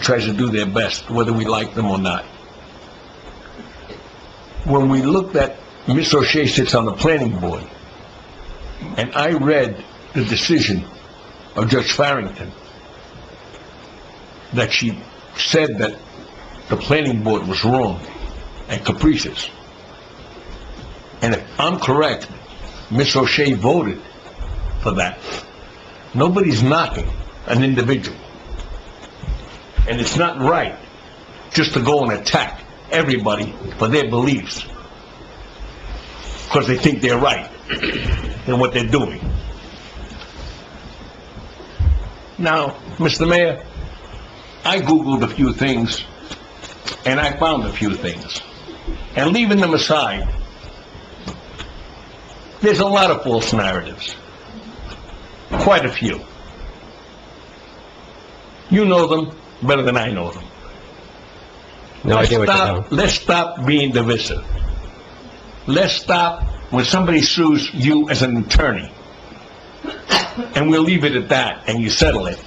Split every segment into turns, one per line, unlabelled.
tries to do their best, whether we like them or not. When we looked at, Ms. O'Shea sits on the planning board, and I read the decision of Judge Farrington, that she said that the planning board was wrong and capricious. And if I'm correct, Ms. O'Shea voted for that. Nobody's knocking an individual and it's not right just to go and attack everybody for their beliefs, because they think they're right in what they're doing. Now, Mr. Mayor, I Googled a few things, and I found a few things. And leaving them aside, there's a lot of false narratives, quite a few. You know them better than I know them.
No idea what
Let's
you're
stop-
talking
Let's stop being divisive. Let's stop when somebody sues you as an attorney, and we'll leave it at that, and you settle it.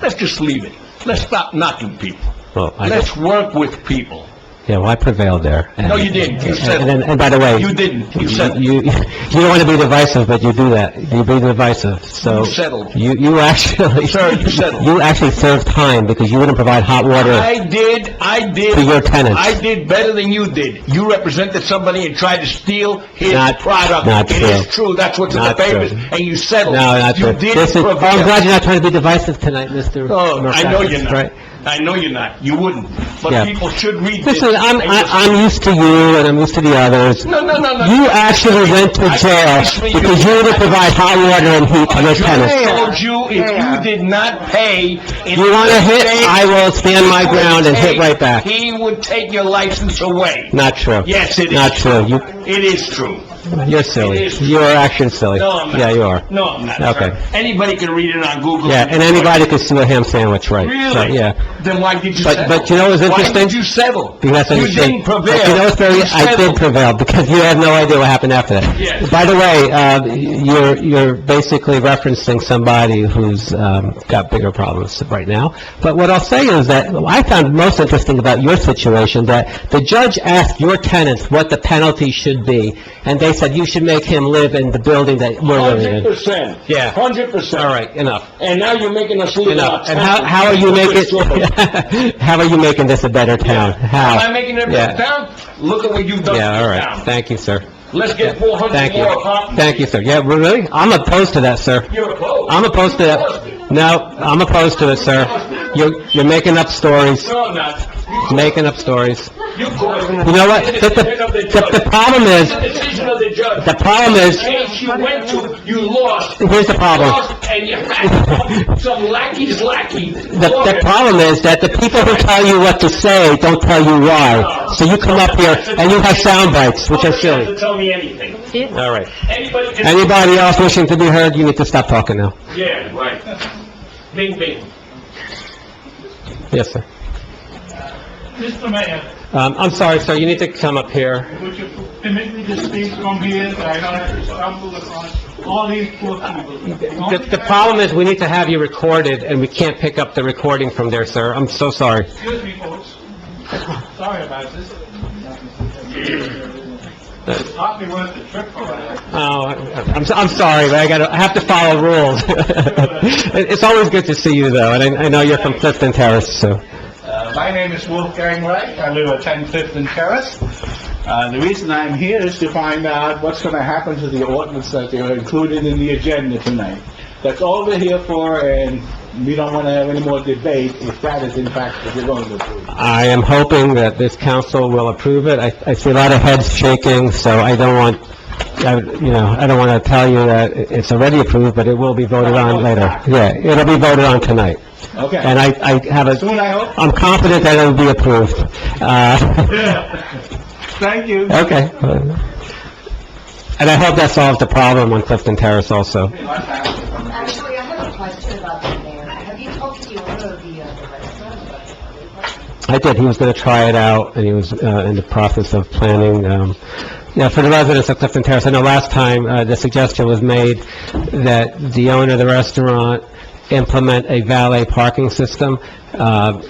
Let's just leave it. Let's stop knocking people.
Well, I,
Let's work with people.
yeah, well, I prevailed there.
No, you didn't. You said-
And, and- and by the way...
You didn't. You settled.
You, you don't want to be divisive, but you do that. You be divisive, so...
You settled.
You, you actually...
Sir, you settled.
You actually served time, because you wouldn't provide hot water
I did, I did.
to your tenants.
I did better than you did. You represented somebody and tried to steal his
Not-
product.
not
It is
true.
true, that's what's in the
Not
papers,
true.
and you settled.
No, not true.
You did
This is- oh, I'm
prevail.
glad you're not trying to be divisive tonight, Mr.
Oh, I know
Murphy,
you're not.
right?
I know you're not. You wouldn't.
Yeah.
But people should read this.
Listen, I'm, I- I'm used to you, and I'm used to the others.
No, no, no, no.
You actually went to
I-
jail
actually, you-
because you wouldn't provide hot water and heat to your tenants.
I told you if you did not pay... in
You want to hit,
this state,
I will stand my
he would
ground and hit
take-
right back.
He would take your license away.
Not true.
Yes, it is.
Not true. You,
It is true.
you're
It
silly.
is true.
You are actually silly.
No, I'm not.
Yeah, you are.
No, I'm not, sir.
Okay.
Anybody can read it on Google.
Yeah, and anybody could sue a ham sandwich, right? So,
Really?
Yeah.
Then why did you
But-
settle?
but you know what's
Why
interesting?
did you settle?
Because that's what
You
you said.
didn't
But You know
prevail.
what's very,
You
I did
settled.
prevail, because you have no idea what happened after that.
Yes.
By the way, uh, you're, you're basically referencing somebody who's, um, got bigger problems right now. But what I'll say is that, I found most interesting about your situation, that the judge asked your tenants what the penalty should be, and they said you should make him live in the building that we're living in.
percent.
Yeah.
Hundred percent.
All right, enough.
And now you're making us lose
Enough. And how, how are you making, how are you making this a better town? How?
Am I making it
Yeah.
down? Look at what you've done
Yeah, all
to
right.
town.
Thank you, sir.
Let's get four hundred
Thank you.
more apartments.
Thank you, sir. Yeah, really? I'm opposed to that, sir.
You're opposed.
I'm opposed to that. No, I'm opposed to it, sir. You're, you're making up stories,
No, I'm not.
making up stories.
You caused it.
You know what?
It's
The,
the decision of the
the-
judge.
the- the problem is,
It's the decision of the judge.
the problem is,
case you went to, you lost.
Here's the problem.
Lost, And you had some lackey's lackey.
the, the problem is that the people who tell you what to say don't tell you why. So you come up here and you have sound bites, which are
Nobody has
silly.
to tell me anything.
All right.
Anybody can...
Anybody else wishing to be heard, you need to stop talking now.
Yeah, right. Bing, bing.
Yes, sir.
Mr. Mayor,
Um, I'm sorry, sir, you need to come up here.
would you permit me to speak from here, that I don't have to stumble upon all these poor people?
The, the problem is, we need to have you recorded, and we can't pick up the recording from there, sir. I'm so sorry.
Excuse me, folks. Sorry about this. It's hardly worth the trip for that.
Oh, I'm, so- I'm sorry, but I gotta, I have to follow rules. It- It's always good to see you, though, and I, I know you're from Clifton Terrace, so.
Uh, My name is Wolfgang Reich, I live at 10 Clifton Terrace. Uh, The reason I'm here is to find out what's going to happen to the ordinance that they are included in the agenda tonight. That's all we're here for, and we don't want to have any more debate if that is in fact what we're going to do.
I am hoping that this council will approve it. I, I see a lot of heads shaking, so I don't want, I- you know, I don't wanna tell you that it- it's already approved, but it will be voted on later. Yeah, it'll be voted on tonight.
Okay.
And I, I have a,
Soon, I hope.
I'm confident that it'll be approved. Uh,
Thank you.
Okay. And I hope that solves the problem on Clifton Terrace also.
Actually, I have a question about the mayor. Have you talked to the owner of the, uh, the restaurant about the
I did, he was going to try it out, and he was uh, in the process of planning, um, yeah, for the residents of Clifton Terrace. I know last time, uh, the suggestion was made that the owner of the restaurant implement a valet parking system. Uh,